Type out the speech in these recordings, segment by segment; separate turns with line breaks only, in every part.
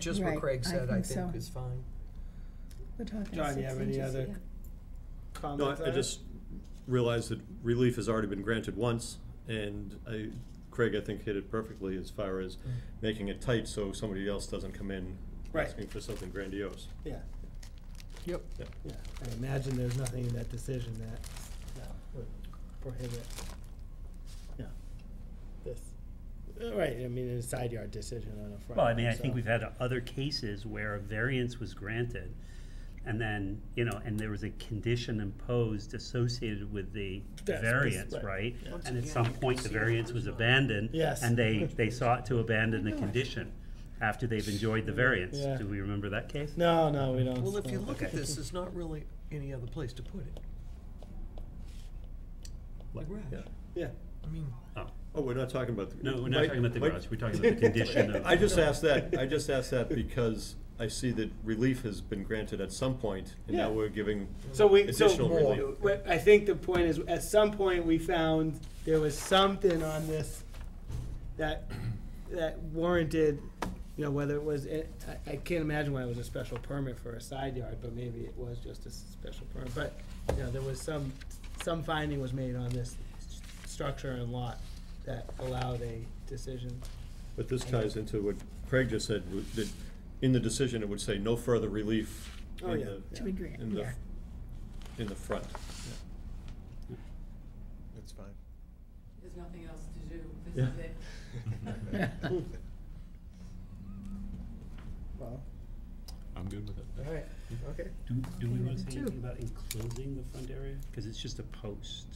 Just what
Right,
Craig
I
said, I
think so.
think is fine.
We're talking
John, you
six
have any
inches,
other
yeah.
Comment
No,
on
I- I
it?
just realized that relief has already been granted once, and I, Craig, I think hit it perfectly as far as
Mm.
making it tight so somebody else doesn't come in
Right.
asking for something grandiose.
Yeah,
Yep.
yeah. I imagine there's nothing in that decision that, you know, would prohibit, yeah, this. Uh, Right, I mean, it's a side yard decision on a front.
Well, I mean, I
so-
think we've had other cases where a variance was granted, and then, you know, and there was a condition imposed associated with the
That's-
variance,
right.
right?
Yeah.
And at
Once
some
again, you
point,
can
the
see the
variance was
original.
abandoned.
Yes.
And they, they sought to abandon the
I know it.
condition after they've enjoyed the variance.
Yeah.
Do we remember that case?
No, no, we don't.
Well, if you
well,
look at
okay.
this, there's not really any other place to put it. The garage.
Yeah.
Yeah,
I mean,
Oh,
Oh, we're not talking about. the-
no, we're not
Mike-
talking about the
Mike-
garage, we're talking about the condition of.
I just asked that, I just asked that because I see that relief has been granted at some point, and now
Yeah.
we're giving
so we, so.
additional relief.
What- I think the point is, at some point, we found there was something on this that, that warranted, you know, whether it was, I, I can't imagine why it was a special permit for a side yard, but maybe it was just a special permit, but, you know, there was some, some finding was made on this s- structure and lot that allowed a decision.
But this ties into what Craig just said, w- that in the decision, it would say no further relief
Oh,
in
yeah.
the,
To be grant,
in the,
yeah.
in the front.
That's fine.
There's nothing else to do,
Yeah.
this is it.
Well,
I'm good with it.
all right, okay.
Do, do we wanna say
Two.
anything about enclosing the front area? Cause it's just a post.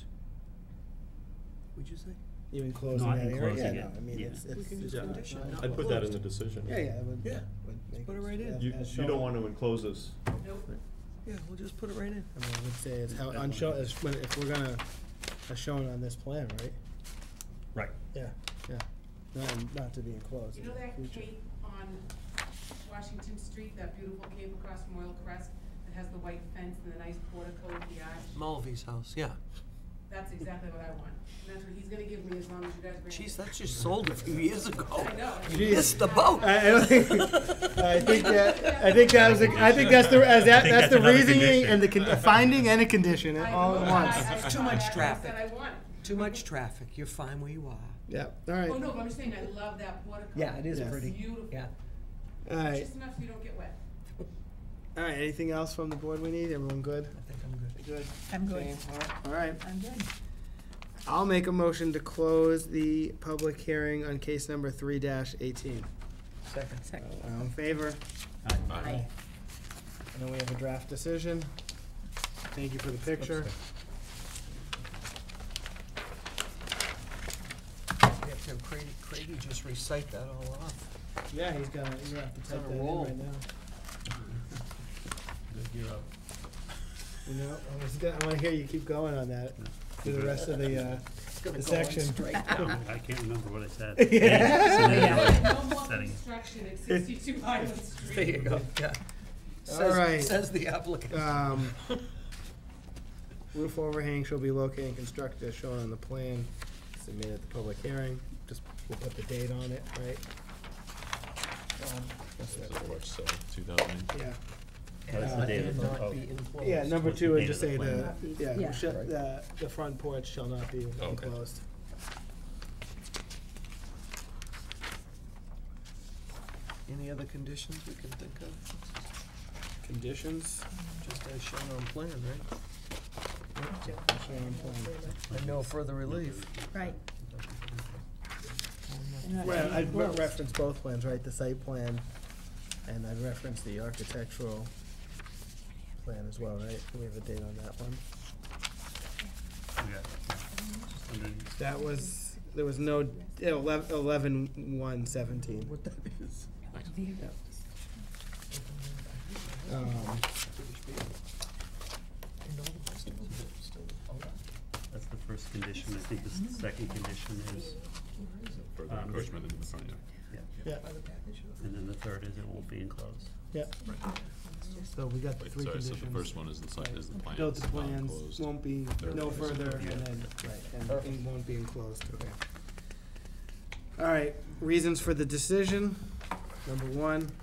would you say?
Even closing
Not
that area, yeah,
enclosing
no,
it,
I mean,
yeah.
it's,
We
it's.
can just
Yeah.
condition it, not
I'd put that in
closed.
the decision.
Yeah, yeah, it would,
Yeah.
would make.
Put it right in.
yeah,
You,
as
you don't
shown.
want to enclose this.
Nope.
Yeah, we'll just put it right in.
I mean, I would say it's how,
That
on
one.
show, it's when, if we're gonna, as shown on this plan, right?
Right.
Yeah. Yeah, not, not to be enclosed.
You know
in the
that
future.
cape on Washington Street, that beautiful cape across from Royal Crest that has the white fence and the nice portico with the arch?
Mulvey's house, yeah.
That's exactly what I want. And that's what he's gonna give me as long as you guys bring it.
Jeez, that just sold a few years ago.
I know.
You missed the boat.
I, I don't think, I think that, I think that was, the- I think that's the, as that,
I
that's
think that's
the
another
reasoning
condition.
and the, con- a finding and a condition
I
all
know,
at
I-
once.
I- I
It's too
saw
much
that, and I said
traffic.
I want it.
Too much traffic, you're fine where you are.
Yeah, all
Oh,
right,
no, but I'm just saying, I love that portico.
Yeah, it is
Yes.
pretty.
It's beautiful.
Yeah.
all right,
Just enough so you don't get wet.
all right, anything else from the board we need? Everyone good?
I think I'm good.
Good.
I'm good,
Jane, all right, All right,
I'm good.
I'll make a motion to close the public hearing on case number three dash eighteen.
Second.
Second.
All in favor?
Aye.
And then we have a draft decision. Thank you for the picture.
We have to have Crady, Crady just recite that all off.
Yeah, he's gonna, he's gonna have to
on
type
a
that in
roll.
right now.
You're up.
You know, I was gonna, I wanna hear you keep going on that through the rest of the, uh, the section.
No, I can't remember what I said.
Yeah.
So maybe I'll-
No more
Setting.
construction at sixty-two Highland Street.
There you go, yeah.
All right.
Says, says the applicant.
Um, roof overhang shall be located and constructed as shown on the plan submitted at the public hearing. Just, we'll put the date on it, right? Um, that's it.
March seventh, two thousand.
Yeah,
That's the
And
date of the-
Not
oh.
Uh, be enclosed.
yeah, number
What's the
two,
date
would
of
just
the
say the,
plan?
yeah,
Yeah.
shut, the, the front porch shall not be enclosed.
Any other conditions we can think of,
Conditions?
just as shown on plan, right?
Oh, Shown plan.
And no further relief.
Right.
Well, I'd re- reference both plans, right, the site plan, and I'd reference the architectural plan as well, right? We have a date on that one.
Yeah. Just underneath.
That was, there was no, eleven, eleven, one seventeen.
What that is.
Um,
And all the rest of them are still alive.
That's the first condition, I think the s- second condition is,
Further
Um,
encroachment into the front yard.
yeah,
By the package of-
and then the third is it won't be enclosed.
yeah, so we got the
Wait,
three
sorry, so
conditions.
the first one is the site, is the plans.
Note the
not
plans
enclosed.
won't be,
Third
no
one is-
further,
yeah.
and then, right, and it won't be enclosed, okay. All right, reasons for the decision, number one,